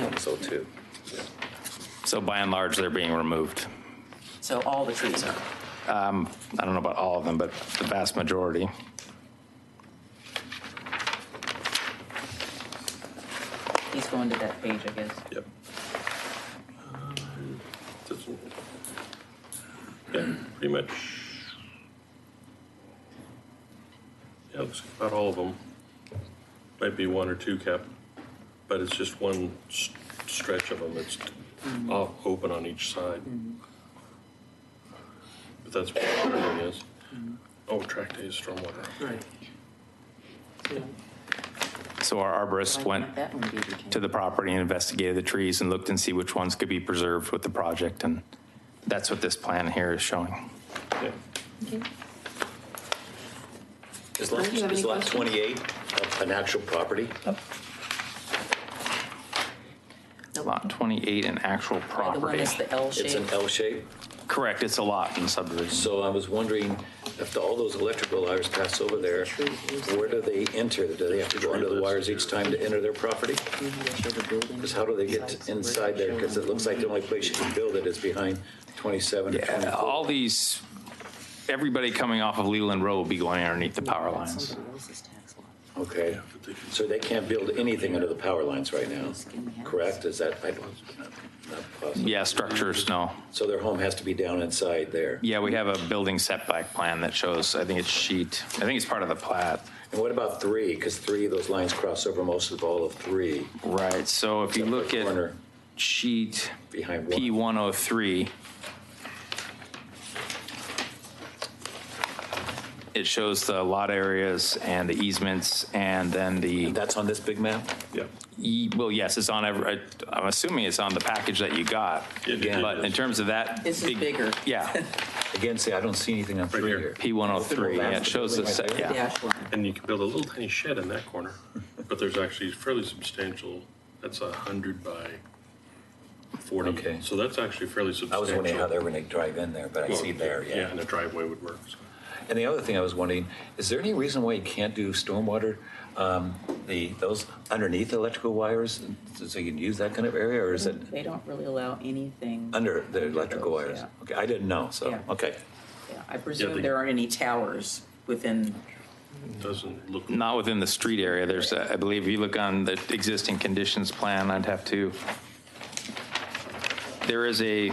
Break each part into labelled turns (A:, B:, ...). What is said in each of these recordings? A: one's oh two.
B: So by and large, they're being removed.
C: So all the trees are.
B: I don't know about all of them, but the vast majority.
C: He's going to that page, I guess.
A: Yep.
D: This one. Yeah, pretty much. Yeah, looks like about all of them. Might be one or two cap, but it's just one s- stretch of them that's all open on each side. But that's what the wondering is. Oh, track days, stormwater.
E: Right. Yeah.
B: So our arborist
C: Why
B: went
C: can't that one be retained?
B: to the property and investigated the trees and looked and see which ones could be preserved with the project. And that's what this plan here is showing.
D: Yeah.
F: Is lot,
G: Do you have
F: is
G: any
F: lot
G: questions? Oh,
F: 28 an actual property?
B: Lot 28 and actual
C: The one
B: property.
C: that's the L
F: It's an
C: shape.
F: L shape?
B: Correct, it's a lot in subdivision.
F: So I was wondering, after all those electrical wires pass over there, where do they enter? Do they have to go under the wires each time to enter their property? Because how do they get inside there? Because it looks like the only place you can build it is behind 27 or
B: Yeah, All
F: 24.
B: these, everybody coming off of Leland Road will be going underneath the power lines.
C: Somebody else's tax lot.
F: Okay, so they can't build anything under the power lines right now, correct? Is that, I don't, not possible.
B: Yeah, structures, no.
F: So their home has to be down inside there?
B: Yeah, we have a building setback plan that shows, I think it's sheet, I think it's part of the plat.
F: And what about three? Because three, those lines cross over most of all of three.
B: Right, so if you look at
F: Corner.
B: sheet
F: Behind one.
B: P103, it shows the lot areas and the easements and then the,
F: That's on this big map?
D: Yeah.
B: e- well, yes, it's on, every. I'm assuming it's on the package that you got.
D: It- it
B: But in
D: is.
B: terms of that.
C: This is
B: big-
C: bigger.
B: Yeah,
F: Again, see, I don't see anything on three
D: here.
F: here.
B: P103, yeah, it shows the, set-
C: The
B: yeah.
C: dash line.
D: And you can build a little tiny shed in that corner, but there's actually fairly substantial, that's a hundred by
F: Okay.
D: forty, so that's actually fairly substantial.
F: I was wondering how they're going to drive in there, but I see there,
D: Yeah, and
F: yeah.
D: a driveway would work, so.
F: And the other thing I was wondering, is there any reason why you can't do stormwater, um, the, those underneath electrical wires? So you can use that kind of area, or is it
C: They don't really allow anything.
F: under the electrical
C: those,
F: wires?
C: yeah.
F: Okay, I didn't know, so,
C: Yeah.
F: okay.
C: Yeah, I presume
D: they-
C: there aren't any towers within,
D: It Doesn't look.
B: Not within the street area, there's, a- I believe, if you look on the existing conditions plan, I'd have to, there is a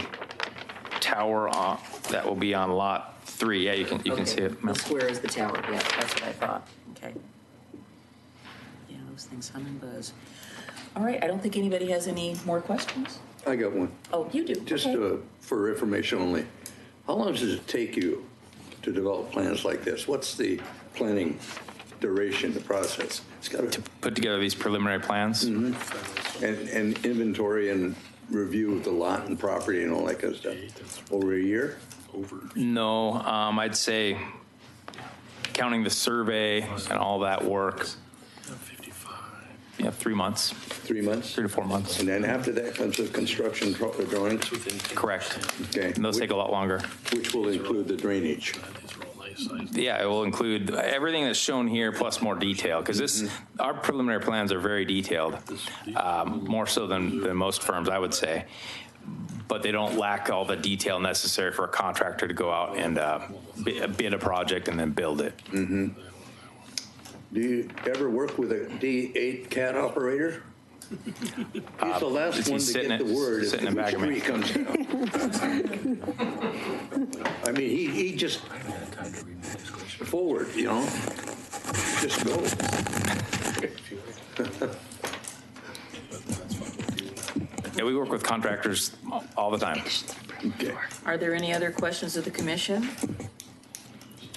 B: tower on- that will be on Lot 3, yeah, you can, you can see
C: okay,
B: it.
C: the square is the tower, yeah, that's what I thought, okay. Yeah, those things hum and buzz. All right, I don't think anybody has any more questions?
H: I got one,
C: Oh, you do,
H: just
C: okay.
H: uh, for information only. How long does it take you to develop plans like this? What's the planning duration, the process? It's got to,
B: Put together these preliminary plans?
H: and, and inventory and review of the lot and property and all that kind of stuff. Over a year?
B: No, um, I'd say, counting the survey and all that work, yeah, three months,
H: Three months?
B: three to four months,
H: And then after that comes the construction dra- the drawings?
B: correct.
H: Okay.
B: And those take a lot longer.
H: Which will include the drainage.
B: Yeah, it will include everything that's shown here plus more detail, because this, our preliminary plans are very detailed, um, more so than, than most firms, I would say. But they don't lack all the detail necessary for a contractor to go out and uh, bi- bid a project and then build it.
H: Do you ever work with a D8 cat operator? He's the
B: Uh, is
H: last
B: he
H: one to
B: sitting
H: get
B: in-
H: the word if
B: sitting in
H: the
B: back of me?
H: tree comes down. I mean, he, he just forward, you know? Just go.
B: Yeah, we work with contractors all the time.
H: Okay.
C: Are there any other questions of the commission?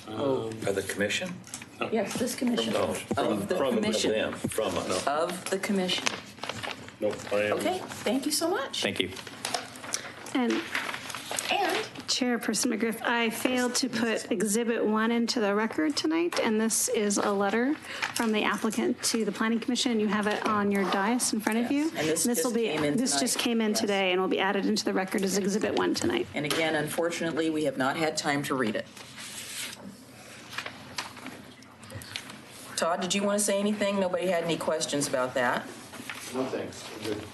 F: By the commission?
C: Yes, this commission.
F: No,
C: Of the commission.
F: Them, Oh. from us.
C: Of the commission.
D: Nope, I am.
C: Okay, thank you so much.
B: Thank you.
G: And
C: And
G: Chairperson McGriff, I failed to put Exhibit 1 into the record tonight, and this is a letter from the applicant to the Planning Commission. You have it on your dais in front of you.
C: Yes, and this just
G: will be
C: came in
G: This
C: tonight.
G: just came in
C: Yes.
G: today and will be added into the record as Exhibit 1 tonight.
C: And again, unfortunately, we have not had time to read it. Todd, did you want to say anything? Nobody had any questions about that?